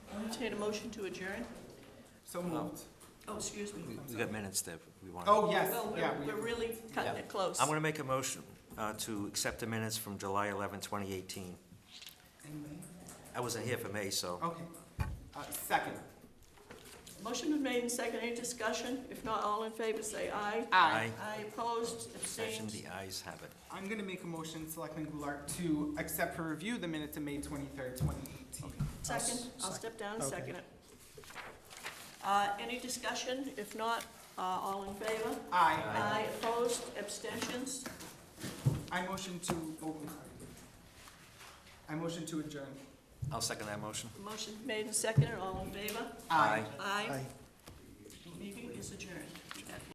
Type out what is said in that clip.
entertain a motion to adjourn? So moved. Oh, excuse me. We we got minutes that we want. Oh, yes, Well, yeah. we're- we- we're really cutting it close. I'm going to make a motion uh, to accept the minutes from July 11, 2018. Amen. I wasn't here for May, so. Okay. Uh, Second. Motion was made and seconded. Any discussion? If not, all in favor, say aye. Aye. Aye opposed, Session, abstained. the ayes have it. I'm going to make a motion, Selectman Goulart, to accept for review the minutes of May 23rd, 2018. Second, I'll step down and second it. Uh, Any discussion? If not, uh, all in favor? Aye. Aye opposed, abstentions? I motion to, oh, I'm sorry. I motion to adjourn. I'll second that motion. Motion made and seconded. All in favor? Aye. Aye. Meeting is adjourned.